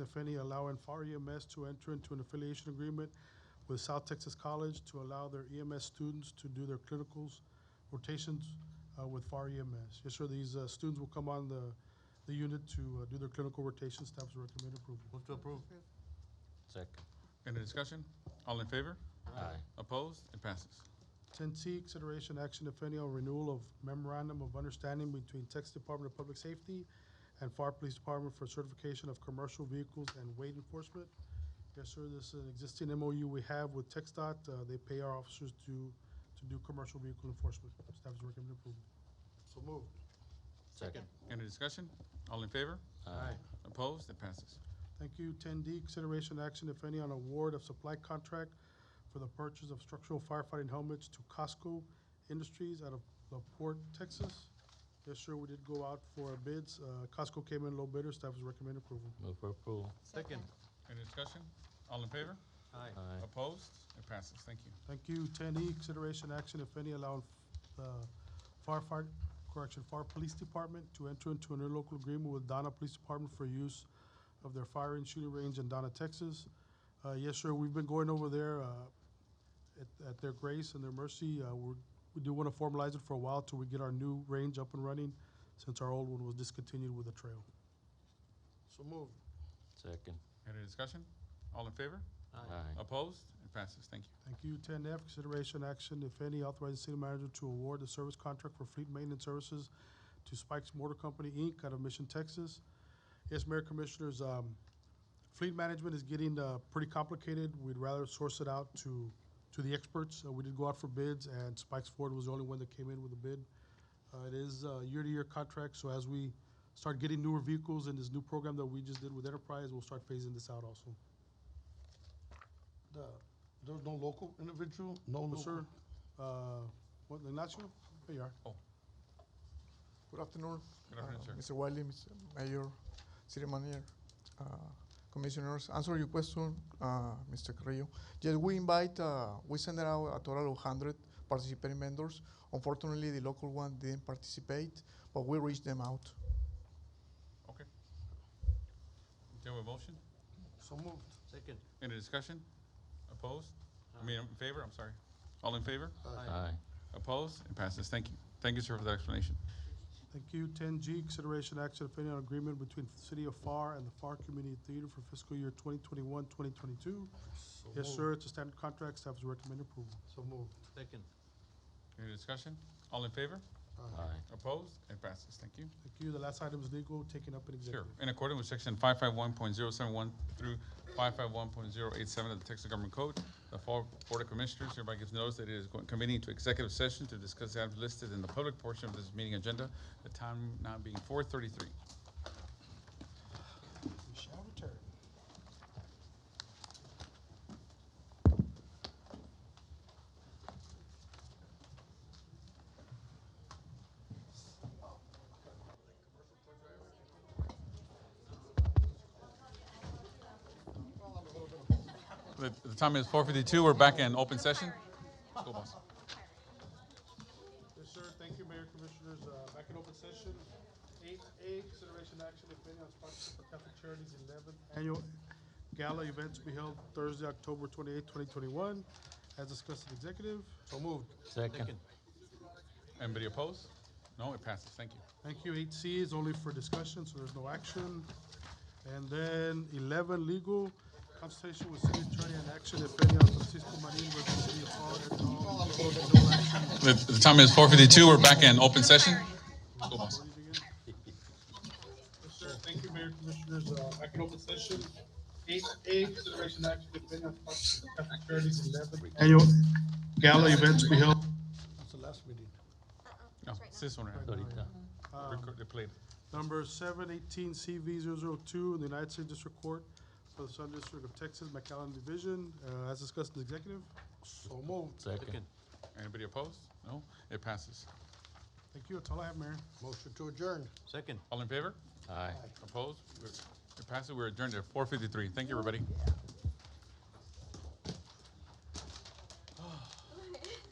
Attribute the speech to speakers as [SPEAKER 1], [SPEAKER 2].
[SPEAKER 1] if any, allowing FAR EMS E to enter into an affiliation agreement with South Texas College to allow their EMS students to do their clinicals rotations uh, with FAR EMS. Yes, sir, these uh, students will come on the, the unit to uh, do their clinical rotation. Staff's recommend approval.
[SPEAKER 2] Move to approve.
[SPEAKER 3] Second.
[SPEAKER 4] Any discussion? All in favor?
[SPEAKER 3] Aye.
[SPEAKER 4] Opposed? It passes.
[SPEAKER 1] Ten C, consideration action, if any, on renewal of memorandum of understanding between Texas Department of Public Safety and FAR Police Department for certification of commercial vehicles and weight enforcement. Yes, sir, this is an existing MOU we have with TXDOT. Uh, They pay our officers to, to do commercial vehicle enforcement. Staff's recommend approval.
[SPEAKER 2] So moved.
[SPEAKER 3] Second.
[SPEAKER 4] Any discussion? All in favor?
[SPEAKER 3] Aye.
[SPEAKER 4] Opposed? It passes.
[SPEAKER 1] Thank you. Ten D, consideration action, if any, on award of supply contract for the purchase of structural firefighting helmets to Costco Industries out of La Porte, Texas. Yes, sir, we did go out for bids. Uh, Costco came in low bidder. Staff is recommending approval.
[SPEAKER 3] Move for approval.
[SPEAKER 2] Second.
[SPEAKER 4] Any discussion? All in favor?
[SPEAKER 2] Aye.
[SPEAKER 3] Aye.
[SPEAKER 4] Opposed? It passes. Thank you.
[SPEAKER 1] Thank you. Ten E, consideration action, if any, allowing uh, firefight, correction, fire police department to enter into an interlocal agreement with Donna Police Department for use of their fire and shooting range in Donna, Texas. Uh, Yes, sir, we've been going over there uh, at, at their grace and their mercy. Uh, We're, we do want to formalize it for a while till we get our new range up and running, since our old one was discontinued with the trail.
[SPEAKER 2] So moved.
[SPEAKER 3] Second.
[SPEAKER 4] Any discussion? All in favor?
[SPEAKER 3] Aye.
[SPEAKER 4] Opposed? It passes. Thank you.
[SPEAKER 1] Thank you. Ten F, consideration action, if any, authorizing city manager to award the service contract for fleet maintenance services to Spikes Motor Company, Inc., out of Mission, Texas. Yes, Mayor Commissioners, um, fleet management is getting, uh, pretty complicated. We'd rather source it out to, to the experts. Uh, we did go out for bids, and Spikes Ford was the only one that came in with a bid. Uh, it is a year-to-year contract, so as we start getting newer vehicles in this new program that we just did with Enterprise, we'll start phasing this out also.
[SPEAKER 2] The, there's no local individual, no
[SPEAKER 1] No,
[SPEAKER 2] local?
[SPEAKER 1] sir. Uh, what, Ignacio? There you are.
[SPEAKER 5] Good afternoon.
[SPEAKER 4] Good afternoon,
[SPEAKER 5] uh,
[SPEAKER 4] sir.
[SPEAKER 5] Mr. Wiley, Mr. Mayor, City Manager, uh, Commissioners. Answer your question, uh, Mr. Carrillo. Yes, we invite, uh, we send out a total of 100 participating vendors. Unfortunately, the local one didn't participate, but we reached them out.
[SPEAKER 4] Okay. Do we have a motion?
[SPEAKER 2] So moved. Second.
[SPEAKER 4] Any discussion? Opposed? I mean, in favor? I'm sorry. All in favor?
[SPEAKER 3] Aye.
[SPEAKER 4] Opposed? It passes. Thank you. Thank you, sir, for that explanation.
[SPEAKER 1] Thank you. Ten G, consideration action, if any, on agreement between the City of FAR and the FAR Community Theater for fiscal year 2021-2022.
[SPEAKER 2] So
[SPEAKER 1] Yes,
[SPEAKER 2] moved.
[SPEAKER 1] sir, it's a standard contract. Staff is recommending approval.
[SPEAKER 2] So moved.
[SPEAKER 6] Second.
[SPEAKER 4] Any discussion? All in favor?
[SPEAKER 3] Aye.
[SPEAKER 4] Opposed? It passes. Thank you.
[SPEAKER 1] Thank you. The last item is legal, taken up in
[SPEAKER 4] Sure.
[SPEAKER 1] executive.
[SPEAKER 4] In accordance with section five five one point zero seven one through five five one point zero eight seven of the Texas Government Code, the Fall Board of Commissioners hereby gives notice that it is going- convening to executive session to discuss items listed in the public portion of this meeting agenda, the time now being four thirty-three.
[SPEAKER 2] We shall return.
[SPEAKER 4] The, the time is four fifty-two. We're back in open session. Let's go, boss.
[SPEAKER 1] Yes, sir. Thank you, Mayor Commissioners. Uh, back in open session. Eight A, consideration action, if any, on sponsorship for Catholic Charities eleventh annual gala event to be held Thursday, October twenty-eighth, twenty twenty-one, as discussed in executive.
[SPEAKER 2] So moved.
[SPEAKER 3] Second.
[SPEAKER 4] Anybody opposed? No, it passes. Thank you.
[SPEAKER 1] Thank you. Eight C is only for discussion, so there's no action. And then eleven, legal consultation with city attorney and action if any on Francisco Marin versus City of Paul et al. No action.
[SPEAKER 4] The, the time is four fifty-two. We're back in open session. Let's go, boss.
[SPEAKER 1] Yes, sir. Thank you, Mayor Commissioners. Uh, back in open session. Eight A, consideration action if any on sponsorship of Catholic Charities eleven annual gala event to be held.
[SPEAKER 2] That's the last meeting.
[SPEAKER 4] No, it's this one right here.
[SPEAKER 3] Ahorita.
[SPEAKER 4] Record- They played.
[SPEAKER 1] Um, Number seven eighteen CV 2 in the United States District Court for the Southern District of Texas, McAllen Division, uh, as discussed in executive.
[SPEAKER 2] So moved.
[SPEAKER 3] Second.
[SPEAKER 4] Anybody opposed? No, it passes.
[SPEAKER 1] Thank you. That's all I have, Mayor.
[SPEAKER 2] Motion to adjourn.
[SPEAKER 6] Second.
[SPEAKER 4] All in favor?
[SPEAKER 3] Aye.
[SPEAKER 4] Opposed? We're- It passes. We're adjourned at four fifty-three. Thank you, everybody.